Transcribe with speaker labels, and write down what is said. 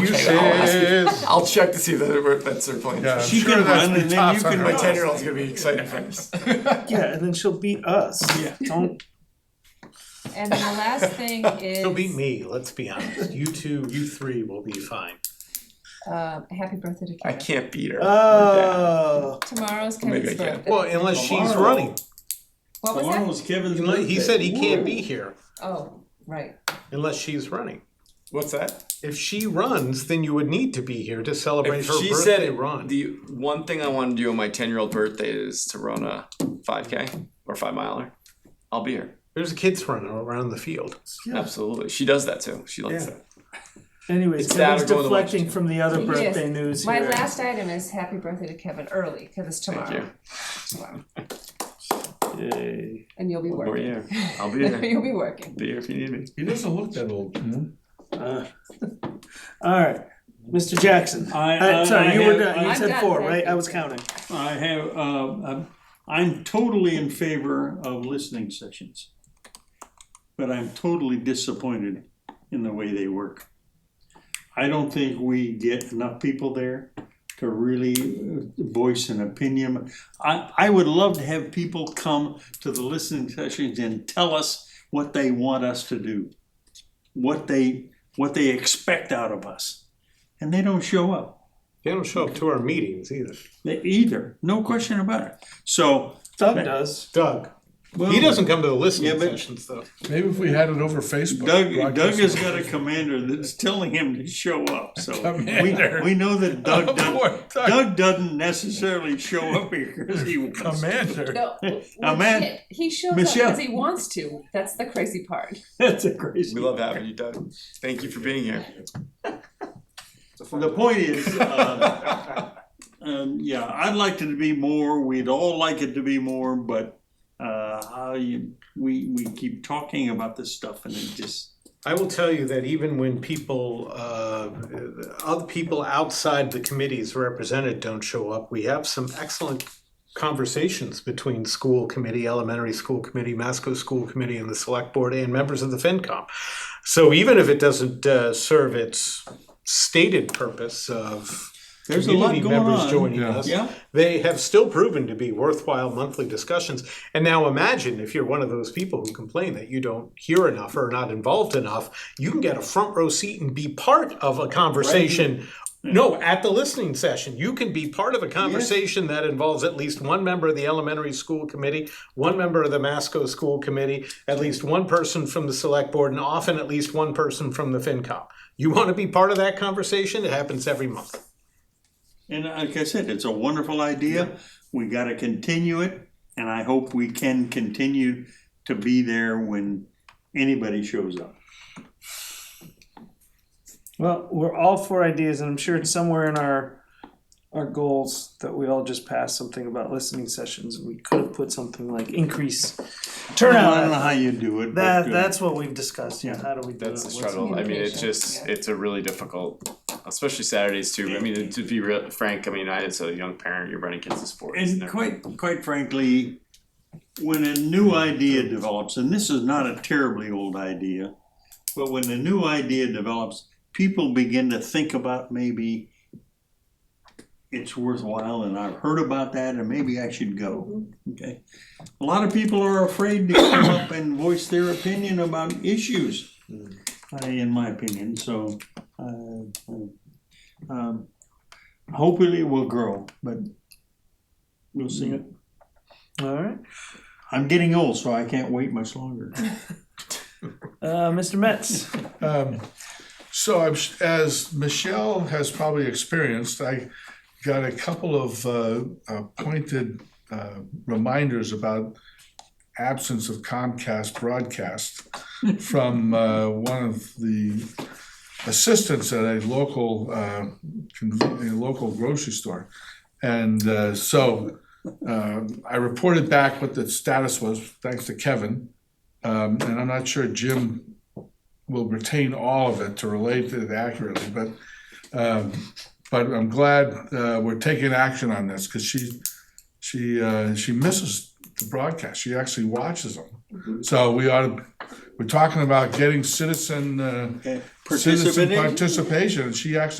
Speaker 1: You says.
Speaker 2: I'll check to see that it- that's their plan.
Speaker 1: Yeah, I'm
Speaker 3: She
Speaker 1: sure
Speaker 3: can
Speaker 1: that's
Speaker 3: run
Speaker 1: been
Speaker 3: and then
Speaker 1: tough
Speaker 3: you
Speaker 1: on
Speaker 3: can
Speaker 1: her.
Speaker 2: My ten year old's gonna be excited for this.
Speaker 3: Yeah, and then she'll beat us.
Speaker 2: Yeah.
Speaker 3: Don't.
Speaker 4: And then the last thing is
Speaker 5: She'll beat me, let's be honest. You two, you three will be fine.
Speaker 4: uh, happy birthday to
Speaker 2: I
Speaker 4: Kevin.
Speaker 2: can't beat her.
Speaker 6: Uh,
Speaker 3: Oh.
Speaker 4: Tomorrow's
Speaker 2: Maybe
Speaker 4: Kevin's
Speaker 2: I can.
Speaker 4: birthday.
Speaker 5: Well, unless she's
Speaker 3: Tomorrow.
Speaker 5: running.
Speaker 4: What was that?
Speaker 3: Tomorrow's Kevin's
Speaker 5: Unless- He
Speaker 3: birthday.
Speaker 5: said he can't be here
Speaker 4: Oh, right.
Speaker 5: unless she's running.
Speaker 2: What's that?
Speaker 5: If she runs, then you would need to be here to celebrate her
Speaker 6: she
Speaker 5: birthday
Speaker 6: said
Speaker 5: run.
Speaker 6: the one thing I want to do on my 10 year old birthday is to run a 5K or 5 miler. I'll be here.
Speaker 5: There's a kids run around the field.
Speaker 3: Yeah.
Speaker 6: Absolutely. She does that too. She likes
Speaker 5: Yeah.
Speaker 6: that.
Speaker 3: Anyways,
Speaker 6: It's that
Speaker 3: Kevin's
Speaker 6: or going to lunch,
Speaker 3: deflecting
Speaker 6: too.
Speaker 3: from the other
Speaker 4: Yes.
Speaker 3: birthday news
Speaker 4: My
Speaker 3: here.
Speaker 4: last item is happy birthday to Kevin early because it's
Speaker 6: Thank
Speaker 4: tomorrow.
Speaker 6: you.
Speaker 4: Tomorrow.
Speaker 6: Yay.
Speaker 4: And you'll be
Speaker 6: We're
Speaker 4: working.
Speaker 6: here. I'll be here.
Speaker 4: you'll be working.
Speaker 6: be here if you need me.
Speaker 1: He doesn't look that old.
Speaker 3: Uh, all right, Mr. Jackson.
Speaker 7: I,
Speaker 3: Uh,
Speaker 7: I,
Speaker 3: sorry,
Speaker 7: I
Speaker 3: you
Speaker 7: have,
Speaker 3: were done. You
Speaker 4: I'm
Speaker 3: said
Speaker 4: done,
Speaker 3: four,
Speaker 4: thank
Speaker 3: right?
Speaker 4: you.
Speaker 3: I was counting.
Speaker 7: I have. Uh, I'm, I'm totally in favor of listening sessions, but I'm totally disappointed in the way they work. I don't think we get enough people there to really uh, voice an opinion. I, I would love to have people come to the listening sessions and tell us what they want us to do, what they what they expect out of us, and they don't show up.
Speaker 5: They don't show up to our meetings either.
Speaker 7: They- Either, no question about it. So,
Speaker 3: Doug does.
Speaker 5: Doug.
Speaker 7: well,
Speaker 5: He doesn't come to the listening
Speaker 7: Yeah, but-
Speaker 5: sessions though.
Speaker 1: Maybe if we had it over Facebook.
Speaker 7: Doug, Doug
Speaker 1: broadcast
Speaker 7: has
Speaker 1: it.
Speaker 7: got a commander that's telling him to show up. So we,
Speaker 1: Commander.
Speaker 7: we know that Doug
Speaker 1: Poor
Speaker 7: doesn't,
Speaker 1: Doug.
Speaker 7: Doug doesn't necessarily show up here because he wants. to.
Speaker 1: Commander.
Speaker 4: No,
Speaker 7: Oh, man.
Speaker 4: legit, He shows
Speaker 7: Michelle.
Speaker 4: up because he wants to. That's the crazy part.
Speaker 7: That's a crazy.
Speaker 6: We love having you, Doug. Thank you for being here.
Speaker 7: The point is, uh, um, yeah, I'd like it to be more. We'd all like it to be more, but uh, how you, we we keep talking about this stuff and it just
Speaker 5: I will tell you that even when people, uh, other people outside the committees represented don't show up, we have some excellent conversations between school committee, elementary school committee, Masco school committee, and the select board, and members of the FinCom. So even if it doesn't uh, serve its stated purpose of
Speaker 7: there's a lot
Speaker 5: community
Speaker 7: going
Speaker 5: members
Speaker 7: on.
Speaker 5: joining
Speaker 1: Yeah.
Speaker 5: us,
Speaker 7: Yeah.
Speaker 5: they have still proven to be worthwhile monthly discussions. And now imagine if you're one of those people who complain that you don't hear enough or are not involved enough, you can get a front row seat and be part of a conversation. No, at the listening session, you can be part of a conversation that involves at least one member of the elementary school committee, one member of the Masco school committee, at least one person from the select board, and often at least one person from the FinCom. You want to be part of that conversation? It happens every month.
Speaker 7: And like I said, it's a wonderful idea. We got to continue it, and I hope we can continue to be there when anybody shows up.
Speaker 3: Well, we're all four ideas, and I'm sure it's somewhere in our our goals that we all just passed something about listening sessions. We could have put something like increase turnout.
Speaker 7: I don't know how you do it. but,
Speaker 3: That
Speaker 7: uh,
Speaker 3: that's what we've discussed. Yeah,
Speaker 7: Yeah.
Speaker 3: how do we do
Speaker 6: That's the
Speaker 3: it?
Speaker 6: struggle. I mean, it's
Speaker 4: communication?
Speaker 6: just,
Speaker 4: Yeah.
Speaker 6: it's a really difficult, especially Saturdays too. I mean, to be real, frank, I mean, I, as a young parent, you're running kids to sports.
Speaker 7: And
Speaker 6: they're-
Speaker 7: quite quite frankly, when a new idea develops, and this is not a terribly old idea, but when a new idea develops, people begin to think about maybe it's worthwhile, and I've heard about that, and maybe I should go. Okay, a lot of people are afraid to come up and voice their opinion about issues, uh, in my opinion. So, uh, um, hopefully, we'll grow, but we'll see.
Speaker 3: Mm-hmm. All right,
Speaker 7: I'm getting old, so I can't wait much longer.
Speaker 3: uh, Mr. Metz.
Speaker 1: Um, so I'm, s- as Michelle has probably experienced, I got a couple of uh, uh, pointed uh, reminders about absence of Comcast broadcast from uh, one of the assistants at a local uh, conven- a local grocery store, and uh, so. Uh, I reported back what the status was, thanks to Kevin, um, and I'm not sure Jim will retain all of it to relate it accurately, but, um, but I'm glad, uh, we're taking action on this, cause she, she, uh, she misses the broadcast, she actually watches them. So we ought to We're talking about getting citizen, uh,
Speaker 7: Okay.
Speaker 1: citizen
Speaker 7: Participating?
Speaker 1: participation. and She actually